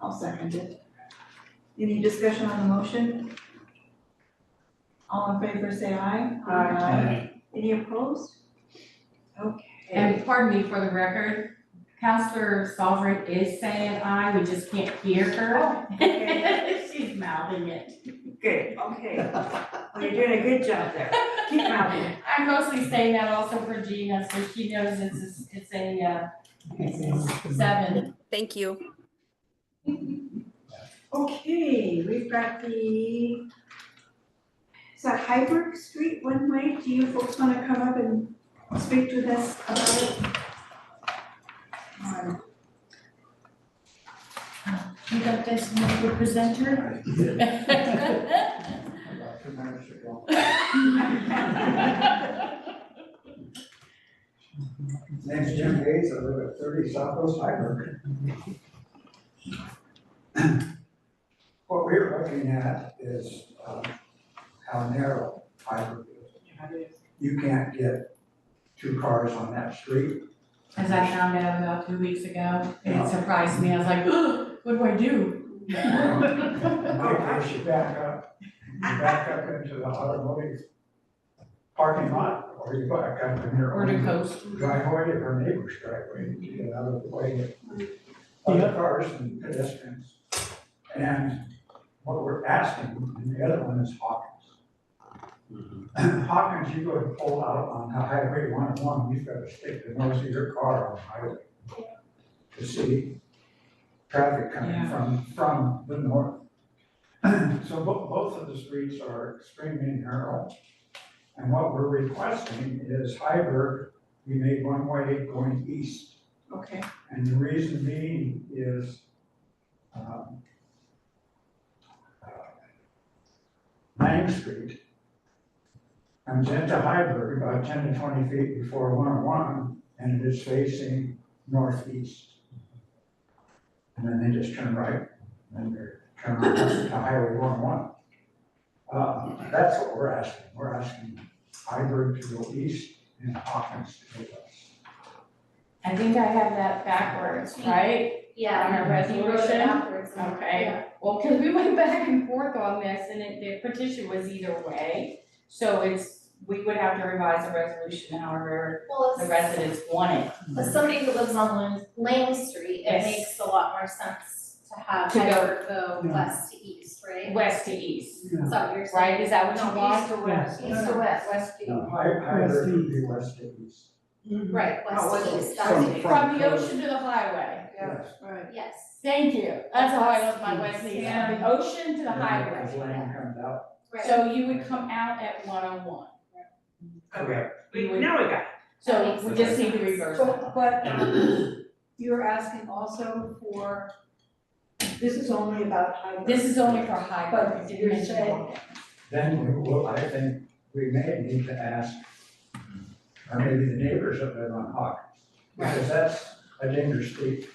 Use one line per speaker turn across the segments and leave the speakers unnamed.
I'll second it. Any discussion on the motion? All in favor, say aye. Any opposed? Okay.
And pardon me for the record, Counselor Sovereign is saying aye, we just can't hear her.
Oh, okay,
She's mouthing it.
good, okay. Well, you're doing a good job there. Keep moving.
I'm mostly saying that also for Gina, so she knows it's, a- it's a, uh, it's a seven.
Thank you.
Okay, we've got the, is that Hyberg Street one way? Do you folks wanna come up and speak to us about it? Um,
You got this, Mr. Presenter?
About two minutes ago. Name's Jim Hayes, I live at thirty Southwest Hyberg. What we're looking at is um, how narrow Hyberg is. You can't get two cars on that street.
As I found out about two weeks ago, and it surprised me, I was like, "Ugh, what do I do?
They push you back up, you back up into the automotive parking lot, or you back up in your
Or to
own
coast.
driveway or our neighbor's driveway to get out of the way of other cars and pedestrians. And what we're asking, and the other one is Hawkins. Hawkins, you go and pull out on Highway one oh one, you've got to stick the nose of your car on the highway to see traffic coming
Yeah.
from, from the north. So bo- both of the streets are extremely narrow. And what we're requesting is Hyberg be made one way going east.
Okay,
And the reason being is, um, uh, Lang Street comes into Hyberg about ten to twenty feet before one oh one, and it is facing northeast. And then they just turn right, and they're turning to Highway one oh one. Uh, that's what we're asking, we're asking Hyberg to go east and Hawkins to go west.
I think I have that backwards, right?
Yeah.
On our
You wrote it
resolution?
backwards, yeah.
Okay, well, cause we went back and forth on this and it, the petition was either way. So it's, we would have to revise the resolution however
Well,
the
if,
residents want it
if somebody who lives on Lang, Lang Street, it
Yes.
makes a lot more sense to have
To go-
Hyberg go
Yeah.
west to east, right?
west to east,
Is that what you're saying?
right? Is that what you
No,
want?
east to west. East to west,
West to
No,
east.
Hy- Hyberg would be west of east.
Right,
Oh,
west
west
to
to
east,
east.
that's
From-
what you-
From the ocean to the highway.
Yes.
right.
yes,
Thank you. That's how I love my west to east, from the ocean to the
As
highway.
land comes out.
right.
So you would come out at one oh one.
Correct.
We would-
now we got
So we just need to reverse
But,
that.
but, um, you're asking also for, this is only about hybrid.
This is only for high
But
growth, did
you're saying,
Then we will, I think, we may need to ask, or maybe the neighbors up there on Hawkins, because that's a dangerous street.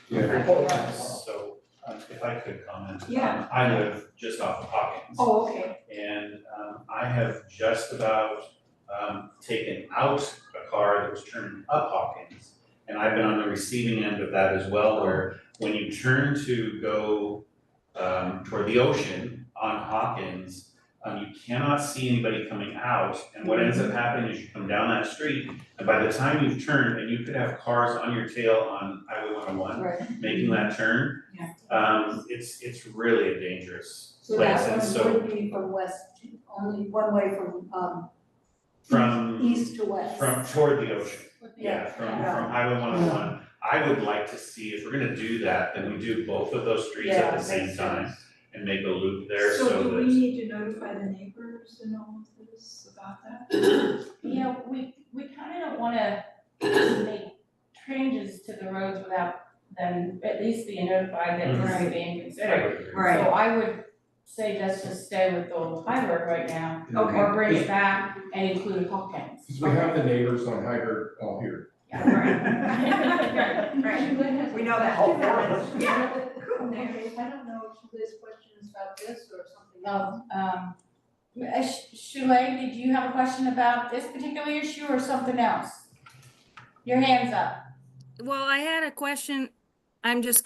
So, um, if I could comment. um,
Yeah.
I live just off of Hawkins.
oh, okay,
And, um, I have just about, um, taken out a car that was turning up Hawkins. And I've been on the receiving end of that as well, where when you turn to go, um, toward the ocean on Hawkins, um, you cannot see anybody coming out, and what ends up
Mm-hmm.
happening is you come down that street, and by the time you've turned, and you could have cars on your tail on Highway one oh one
right.
making that turn.
Yeah.
Um, it's, it's really a dangerous
So
place, and
that one
so
would be from west, to- only one way from, um,
from,
east to west.
from toward the ocean, yeah, from,
Yeah.
from Highway one oh one. I would like to see, if we're gonna do that, then we do both of those streets at the same time and make a loop there so
do we
that,
need to notify the neighbors and all of this about that?
Yeah, we, we kind of don't wanna make changes to the roads without them at least being notified that we're being
I
considered.
would agree.
Right.
So I would say let's just stay with the high road right now,
Okay.
or bring it back and include Hawkins.
Because we have the neighbors on Hyberg all here.
Yeah, right.
Right, we know that.
Oh, yeah.
Yeah. Mary, I don't know if Liz questions about this or something else.
Um, um, uh, Sh- Shuley, did you have a question about this particular issue or something else? Your hand's up.
Well, I had a question. I'm just